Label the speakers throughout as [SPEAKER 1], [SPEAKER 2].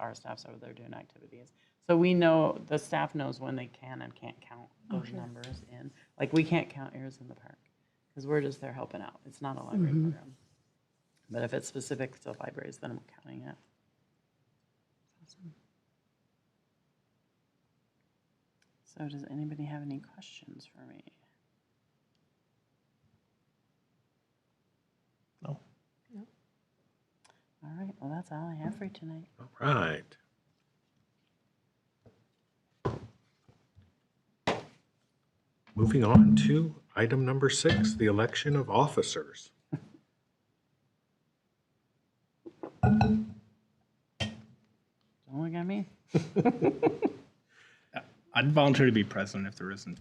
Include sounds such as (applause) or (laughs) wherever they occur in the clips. [SPEAKER 1] our staff's over there doing activities. So we know, the staff knows when they can and can't count those numbers in. Like, we can't count ears in the park, because we're just there helping out. It's not a library program. But if it's specific to libraries, then I'm counting it. So does anybody have any questions for me?
[SPEAKER 2] No.
[SPEAKER 1] All right, well, that's all I have for you tonight.
[SPEAKER 2] All right. Moving on to item number six, the election of officers.
[SPEAKER 1] Don't look at me.
[SPEAKER 3] I'd volunteer to be president if there isn't.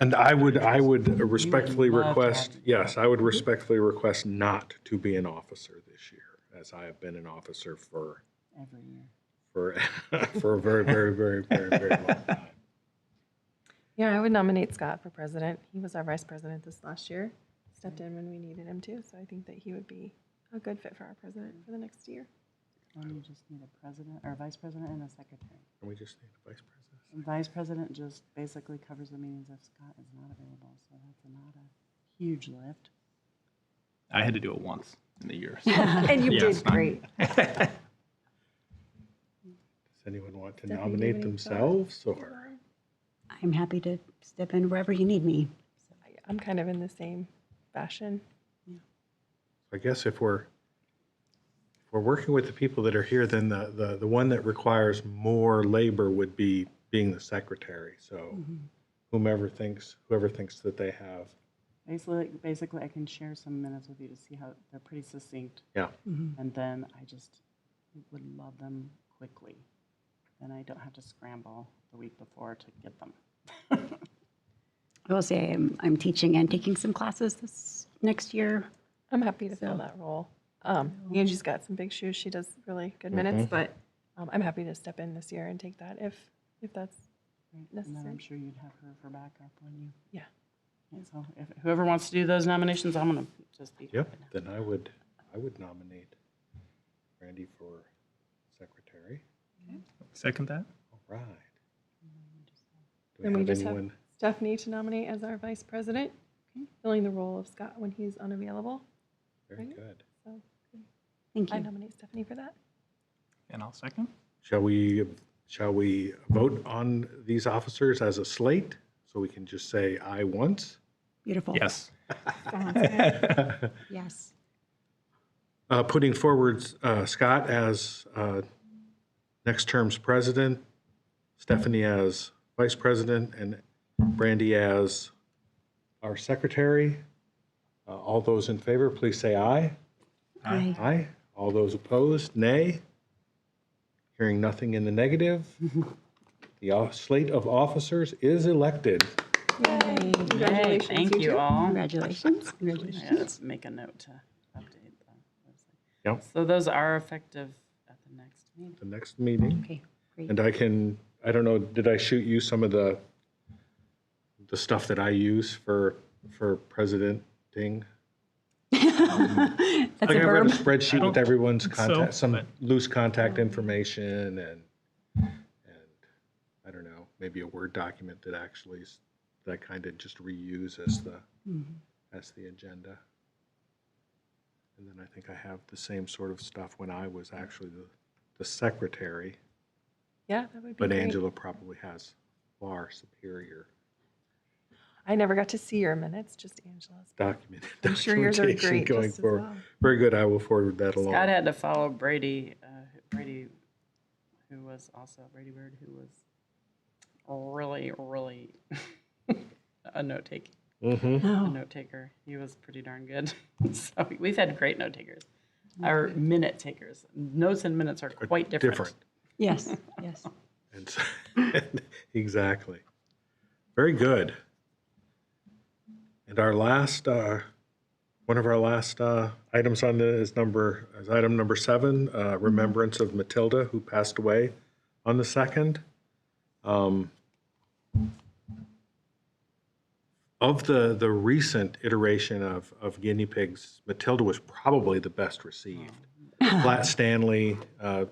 [SPEAKER 2] And I would, I would respectfully request, yes, I would respectfully request not to be an officer this year, as I have been an officer for,
[SPEAKER 1] Every year.
[SPEAKER 2] for, (laughs) for a very, very, very, very, very long time.
[SPEAKER 4] Yeah, I would nominate Scott for president. He was our vice president this last year, stepped in when we needed him to, so I think that he would be a good fit for our president for the next year.
[SPEAKER 1] Then you just need a president, or a vice president and a secretary.
[SPEAKER 2] And we just need a vice president.
[SPEAKER 1] And vice president just basically covers the meetings if Scott is not available, so that's not a huge lift.
[SPEAKER 3] I had to do it once in the year.
[SPEAKER 4] (laughs) (laughs) And you
[SPEAKER 3] Yeah, it's
[SPEAKER 4] did
[SPEAKER 3] fine.
[SPEAKER 4] great.
[SPEAKER 2] Does anyone want to
[SPEAKER 4] Stephanie, do you
[SPEAKER 2] nominate
[SPEAKER 4] have any thoughts?
[SPEAKER 2] themselves or?
[SPEAKER 5] I'm happy to step in wherever you need me.
[SPEAKER 4] I- I'm kind of in the same fashion.
[SPEAKER 2] I guess if we're, if we're working with the people that are here, then the, the, the one that requires more labor would be being the secretary. So
[SPEAKER 4] Mm-hmm.
[SPEAKER 2] whomever thinks, whoever thinks that they have,
[SPEAKER 1] Basically, basically, I can share some minutes with you to see how, they're pretty succinct,
[SPEAKER 2] yeah.
[SPEAKER 1] and then I just would love them quickly. Then I don't have to scramble the week before to get them.
[SPEAKER 5] I will say I'm, I'm teaching and taking some classes this next year.
[SPEAKER 4] I'm happy to fill that role. Um, Angie's got some big shoes. She does really
[SPEAKER 3] Mm-hmm.
[SPEAKER 4] good minutes, but um, I'm happy to step in this year and take that if, if that's,
[SPEAKER 1] right? And then I'm
[SPEAKER 4] Necessary.
[SPEAKER 1] sure you'd have her for backup when you,
[SPEAKER 4] yeah.
[SPEAKER 1] and so if whoever wants to do those nominations, I'm gonna just be.
[SPEAKER 2] Yep, then I would, I would nominate Randy for secretary.
[SPEAKER 3] Second that?
[SPEAKER 2] All right. Do
[SPEAKER 4] Then
[SPEAKER 2] we
[SPEAKER 4] we
[SPEAKER 2] have
[SPEAKER 4] just have
[SPEAKER 2] anyone?
[SPEAKER 4] Stephanie to nominate as our vice president, filling the role of Scott when he's unavailable.
[SPEAKER 2] Very good.
[SPEAKER 4] So
[SPEAKER 5] Thank
[SPEAKER 4] I
[SPEAKER 5] you.
[SPEAKER 4] nominate Stephanie for that.
[SPEAKER 3] And I'll second.
[SPEAKER 2] Shall we, shall we vote on these officers as a slate? So we can just say I once?
[SPEAKER 5] Beautiful.
[SPEAKER 3] Yes.
[SPEAKER 2] (laughs)
[SPEAKER 5] Yes.
[SPEAKER 2] uh, putting forward uh, Scott as uh, next term's president, Stephanie as vice president, and Brandy as our secretary. Uh, All those in favor, please say aye.
[SPEAKER 5] Aye.
[SPEAKER 2] Aye. All those opposed, nay. Hearing nothing in the negative, the off- slate of officers is elected.
[SPEAKER 1] Hey,
[SPEAKER 4] Congratulations.
[SPEAKER 1] thank you
[SPEAKER 4] two.
[SPEAKER 1] all.
[SPEAKER 5] Congratulations.
[SPEAKER 1] Yeah,
[SPEAKER 5] Congratulations.
[SPEAKER 1] let's make a note to update the
[SPEAKER 2] Yep.
[SPEAKER 1] website. So those are effective at the next meeting.
[SPEAKER 2] The next meeting.
[SPEAKER 5] Okay, (laughs) great.
[SPEAKER 2] And I can, I don't know, did I shoot you some of the, the stuff that I use for, for presidenting?
[SPEAKER 5] That's
[SPEAKER 2] Like
[SPEAKER 5] a
[SPEAKER 2] I've got a
[SPEAKER 5] verb.
[SPEAKER 2] spreadsheet with everyone's
[SPEAKER 3] so,
[SPEAKER 2] contact, some
[SPEAKER 3] but-
[SPEAKER 2] loose contact information and, and I don't know, maybe a Word document that actually, s- that I kind of just reuse as the,
[SPEAKER 3] Mm-hmm.
[SPEAKER 2] as the agenda. And then I think I have the same sort of stuff when I was actually the, the secretary.
[SPEAKER 4] Yeah, that would be
[SPEAKER 2] But
[SPEAKER 4] great.
[SPEAKER 2] Angela probably has far superior
[SPEAKER 4] I never got to see your minutes, just Angela's.
[SPEAKER 2] documented
[SPEAKER 4] I'm sure yours are
[SPEAKER 2] documentation
[SPEAKER 4] great.
[SPEAKER 2] going
[SPEAKER 4] just as
[SPEAKER 2] forward.
[SPEAKER 4] well.
[SPEAKER 2] Very good, I will forward that along.
[SPEAKER 1] Scott had to follow Brady, uh, Brady, who was also Brady Bird, who was really, really (laughs) a note taker.
[SPEAKER 2] Mm-hmm.
[SPEAKER 1] A
[SPEAKER 5] Oh.
[SPEAKER 1] note taker. He was pretty darn good. (laughs) so we've had great note takers. Our minute takers. Notes and minutes are quite different.
[SPEAKER 2] Different.
[SPEAKER 5] Yes, yes.
[SPEAKER 2] And so- (laughs) Exactly. Very good. And our last, uh, one of our last uh, items on the, is number, is item number seven, uh, remembrance of Matilda, who passed away on the second. Um, Of the, the recent iteration of, of guinea pigs, Matilda was probably the best received. Flat Stanley, uh,